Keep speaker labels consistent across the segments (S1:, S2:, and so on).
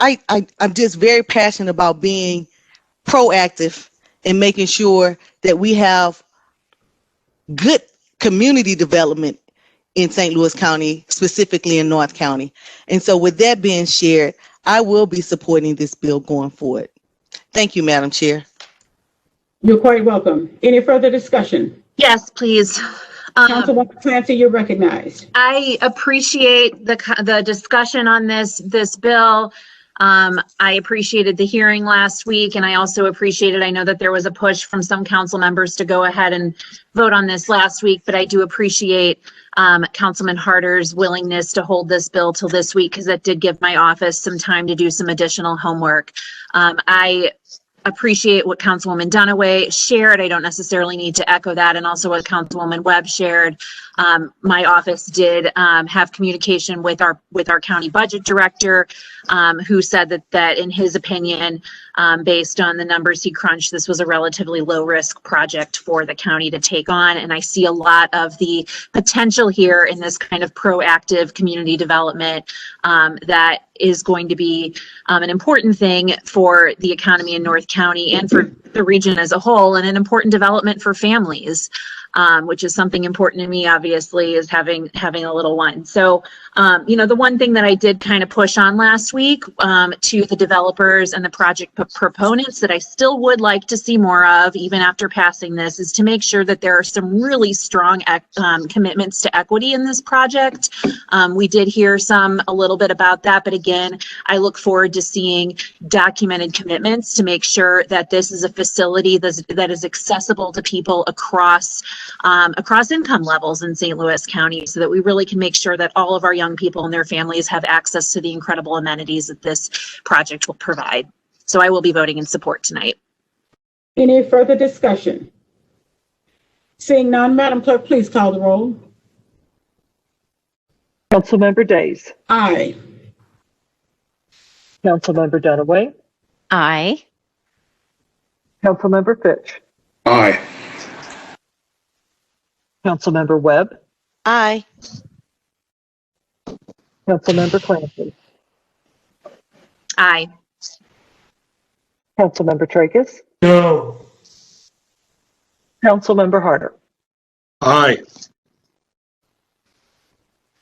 S1: I, I I'm just very passionate about being proactive and making sure that we have good community development in St. Louis County, specifically in North County. And so with that being shared, I will be supporting this bill going forward. Thank you, Madam Chair.
S2: You're quite welcome. Any further discussion?
S3: Yes, please. Um,
S2: Councilwoman Clancy, you're recognized.
S3: I appreciate the, co- the discussion on this, this bill. Um, I appreciated the hearing last week and I also appreciated, I know that there was a push from some council members to go ahead and vote on this last week, but I do appreciate, um, Councilman Harder's willingness to hold this bill till this week because that did give my office some time to do some additional homework. Um, I appreciate what Councilwoman Dunaway shared. I don't necessarily need to echo that and also what Councilwoman Webb shared. Um, my office did, um, have communication with our, with our county budget director, um, who said that, that in his opinion, um, based on the numbers he crunched, this was a relatively low-risk project for the county to take on. And I see a lot of the potential here in this kind of proactive community development, um, that is going to be, um, an important thing for the economy in North County and for the region as a whole, and an important development for families um, which is something important to me, obviously, is having, having a little one. So, um, you know, the one thing that I did kind of push on last week, um, to the developers and the project p- proponents that I still would like to see more of, even after passing this, is to make sure that there are some really strong, ec- um, commitments to equity in this project. Um, we did hear some, a little bit about that, but again, I look forward to seeing documented commitments to make sure that this is a facility that's, that is accessible to people across, um, across income levels in St. Louis County so that we really can make sure that all of our young people and their families have access to the incredible amenities that this project will provide. So I will be voting in support tonight.
S2: Any further discussion? Seeing none, Madam Clerk, please call the roll.
S4: Councilmember Days.
S2: Aye.
S4: Councilmember Dunaway.
S5: Aye.
S4: Councilmember Fitch.
S6: Aye.
S4: Councilmember Webb.
S1: Aye.
S4: Councilmember Clancy.
S3: Aye.
S4: Councilmember Tracus.
S6: No.
S4: Councilmember Harder.
S6: Aye.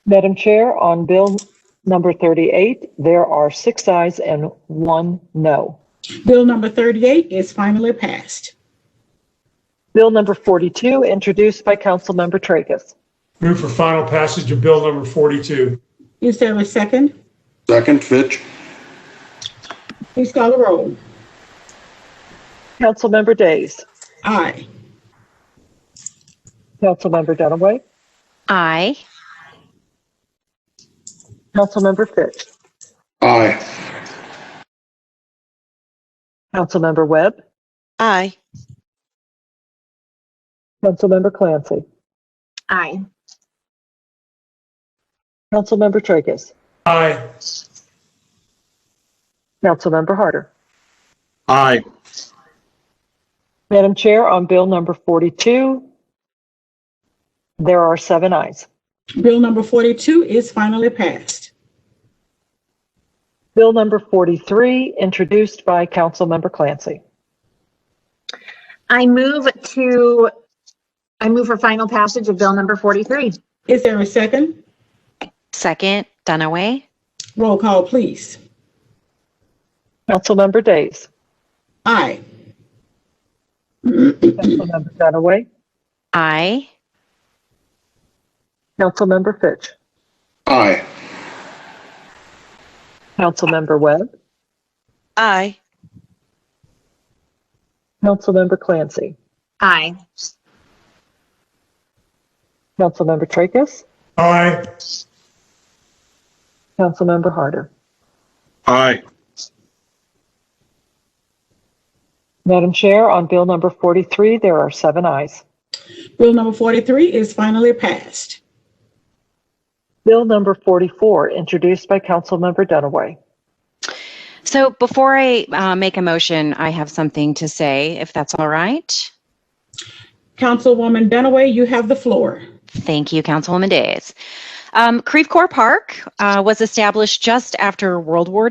S4: Madam Chair, on Bill number 38, there are six ayes and one no.
S2: Bill number 38 is finally passed.
S4: Bill number 42, introduced by Councilmember Tracus.
S7: Move for final passage of Bill number 42.
S2: Is there a second?
S6: Second, Fitch.
S2: Please call the roll.
S4: Councilmember Days.
S2: Aye.
S4: Councilmember Dunaway.
S5: Aye.
S4: Councilmember Fitch.
S6: Aye.
S4: Councilmember Webb.
S1: Aye.
S4: Councilmember Clancy.
S3: Aye.
S4: Councilmember Tracus.
S7: Aye.
S4: Councilmember Harder.
S6: Aye.
S4: Madam Chair, on Bill number 42, there are seven ayes.
S2: Bill number 42 is finally passed.
S4: Bill number 43, introduced by Councilmember Clancy.
S3: I move to, I move for final passage of Bill number 43.
S2: Is there a second?
S5: Second, Dunaway.
S2: Roll call, please.
S4: Councilmember Days.
S2: Aye.
S4: Councilmember Dunaway.
S5: Aye.
S4: Councilmember Fitch.
S6: Aye.
S4: Councilmember Webb.
S1: Aye.
S4: Councilmember Clancy.
S3: Aye.
S4: Councilmember Tracus.
S7: Aye.
S4: Councilmember Harder.
S6: Aye.
S4: Madam Chair, on Bill number 43, there are seven ayes.
S2: Bill number 43 is finally passed.
S4: Bill number 44, introduced by Councilmember Dunaway.
S5: So before I uh, make a motion, I have something to say, if that's all right.
S2: Councilwoman Dunaway, you have the floor.
S5: Thank you, Councilwoman Days. Um, Creve Coeur Park uh, was established just after World War